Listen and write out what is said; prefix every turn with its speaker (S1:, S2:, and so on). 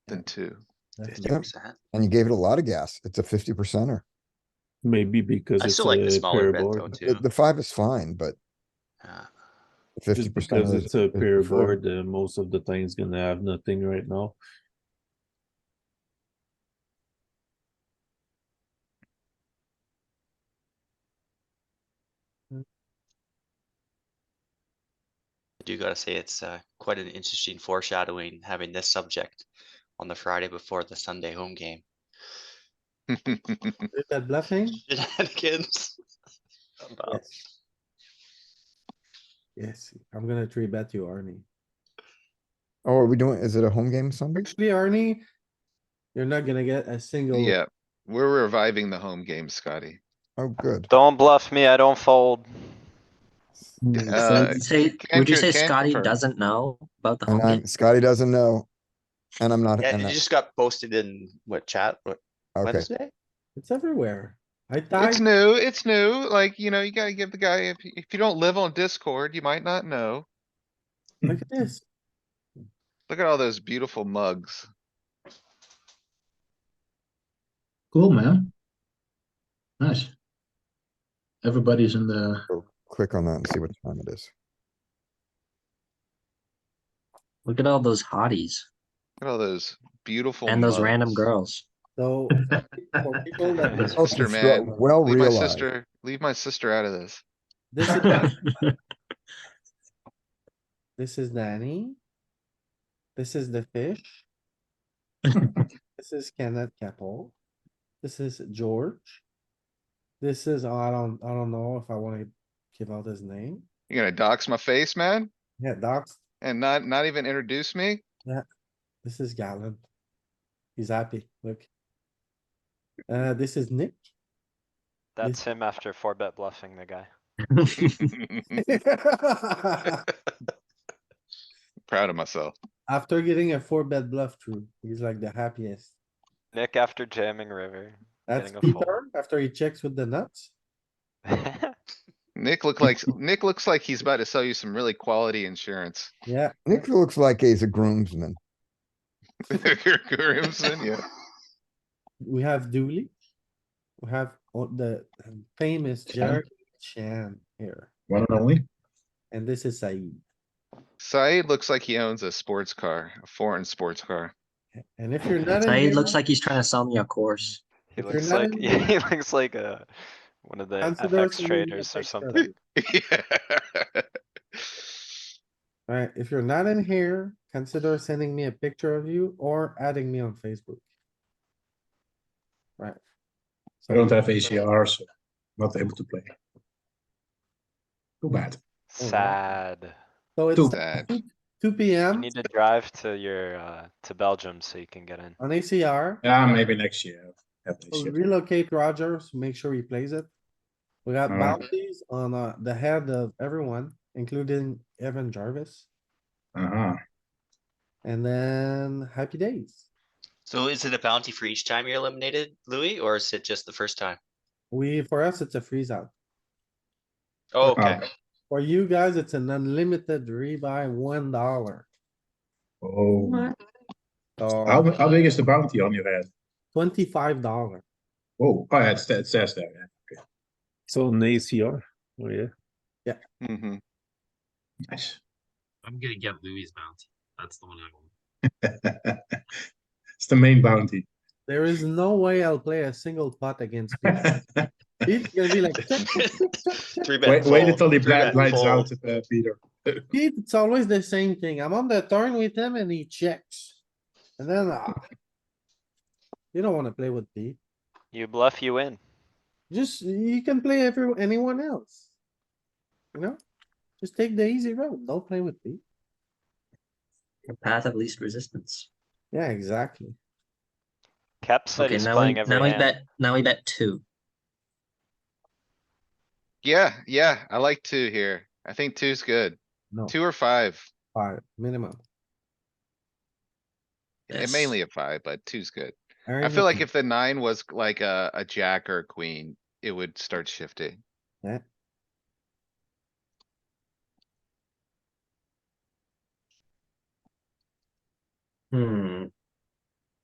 S1: than two.
S2: Definitely.
S3: Fifty
S4: Yep.
S3: percent.
S4: And you gave it a lot of gas. It's a fifty percenter.
S2: Maybe because
S3: I
S2: it's
S3: still like
S2: a
S3: the
S2: pair
S3: smaller bet though
S2: board.
S3: too.
S4: The five is fine, but
S3: Yeah.
S4: fifty
S2: Just
S4: percent
S2: because
S4: is.
S2: it's a
S4: is
S2: pair
S4: preferred.
S2: board, uh, most of the time it's gonna have nothing right now.
S3: I do gotta say it's uh, quite an interesting foreshadowing having this subject on the Friday before the Sunday home game.
S1: It's
S5: Is that bluffing?
S3: Shenanigans.
S1: Oh.
S3: About-
S5: Yes. Yes, I'm gonna three bet you, Arnie.
S4: Oh, are we doing, is it a home game Sunday?
S5: Actually, Arnie, you're not gonna get a single.
S1: Yeah, we're reviving the home game, Scotty.
S4: Oh, good.
S6: Don't bluff me, I don't fold.
S1: Uh,
S7: Would you say,
S1: can
S7: would you
S1: co-
S7: say
S1: can
S7: Scotty
S1: confirm.
S7: doesn't know about the
S4: And
S7: home
S4: I'm,
S7: game?
S4: Scotty doesn't know. And I'm not,
S3: Yeah,
S4: and
S3: you
S4: I-
S3: just got posted in what chat, what
S4: okay,
S3: Wednesday?
S5: It's everywhere. I
S1: It's
S5: died,
S1: new, it's new, like, you know, you gotta give the guy, if, if you don't live on Discord, you might not know.
S5: look at this.
S1: Look at all those beautiful mugs.
S8: Cool, man. Nice. Everybody's in the
S4: click on that and see what time it is.
S7: Look at all those hotties
S1: Look at all those beautiful.
S7: and those random
S1: mugs.
S7: girls.
S5: So. for people that-
S4: Oh,
S1: Sister,
S4: it's re-
S1: man.
S4: Well
S1: Leave my
S4: realized.
S1: sister, leave my sister out of this.
S5: This is, this is Danny. This is the fish. This is Kenneth Keppel. This is George. This is, I don't, I don't know if I wanna give out his name.
S1: You gonna dox my face, man?
S5: Yeah, Doc's
S1: And not, not even introduce me?
S5: This is Gallant. He's happy, look. Uh, this is Nick.
S6: That's him after four bet bluffing the guy.
S1: Proud of myself.
S5: After getting a four bet bluff through, he's like the happiest.
S6: Nick after jamming river.
S5: That's
S6: Getting a fold.
S5: Peter, after he checks with the nuts.
S1: Nick look like, Nick looks like he's about to sell you some really quality insurance.
S5: Yeah,
S4: Nick looks like he's a groomsman.
S1: Grimson, yeah.
S5: we have Dooley. We have o- the famous Jerry Chan here,
S8: one and only.
S5: and this is Saeed.
S1: Said looks like he owns a sports car, a foreign sports car.
S5: And if you're not. in
S7: Saeed
S5: here-
S7: looks like he's trying to sell me a course.
S6: He
S5: If you're
S6: looks
S5: not
S6: like,
S5: in-
S6: yeah, he looks like a, one of the
S5: Consider us
S6: FX
S5: in the
S6: traders or
S5: FX
S6: something.
S5: trade.
S1: Yeah.
S5: Alright, if you're not in here, consider sending me a picture of you or adding me on Facebook. Right.
S8: I don't have ACR, so not able to play. Too bad.
S5: Oh, wow.
S6: Sad.
S5: So it's
S8: Two.
S1: Sad.
S5: two P
S6: You
S5: M
S6: need to drive to your, uh, to Belgium so you can get in.
S5: on ACR.
S8: Yeah, maybe next year. Have this
S5: We'll
S8: year.
S5: Relocate Rogers, make sure he plays it. We got
S8: Alright.
S5: bounties on uh, the head of everyone, including Evan Jarvis,
S8: Uh-huh.
S5: and then happy days.
S3: So is it a bounty for each time you're eliminated, Louis, or is it just the first time?
S5: We, for us, it's a freeze out.
S3: Oh,
S8: Ah,
S3: okay.
S5: For you guys, it's an unlimited rebuy, one dollar.
S8: Oh, how,
S5: So
S8: how big is the bounty on your head?
S5: twenty-five dollar.
S8: Oh, oh, yeah, it sta- it says there. yeah.
S2: So an ACR, oh yeah.
S1: Mhm.
S8: Nice.
S9: I'm gonna get Louis' bounty. That's the one I want.
S8: It's the main bounty.
S5: There is no way I'll play a single pot against Pete. Pete's gonna be like, check, check, check, check, check.
S3: Three bet
S8: Wait, wait
S3: fold,
S8: until the
S3: three
S8: black
S3: bet
S8: lights
S3: fold.
S8: out, uh, Peter.
S5: Pete, it's always the same thing. I'm on the turn with him and he checks. And then, ah. You don't wanna play with Pete.
S6: You bluff, you win.
S5: Just, you can play every, anyone else. You know? Just take the easy road. Don't play with Pete.
S7: The path of least resistance.
S5: Yeah, exactly.
S6: Kep said
S7: Okay,
S6: he's
S7: now we,
S6: playing every
S7: now we
S6: hand.
S7: bet, now we bet two.
S1: Yeah, yeah, I like two here. I think two's good.
S5: No,
S1: Two or five.
S5: five, minimum.
S1: And
S7: Yes.
S1: mainly a five, but two's good.
S5: Aaron
S1: I feel like
S5: Gordon.
S1: if the nine was like a, a jack or a queen, it would start shifting.
S7: Hmm,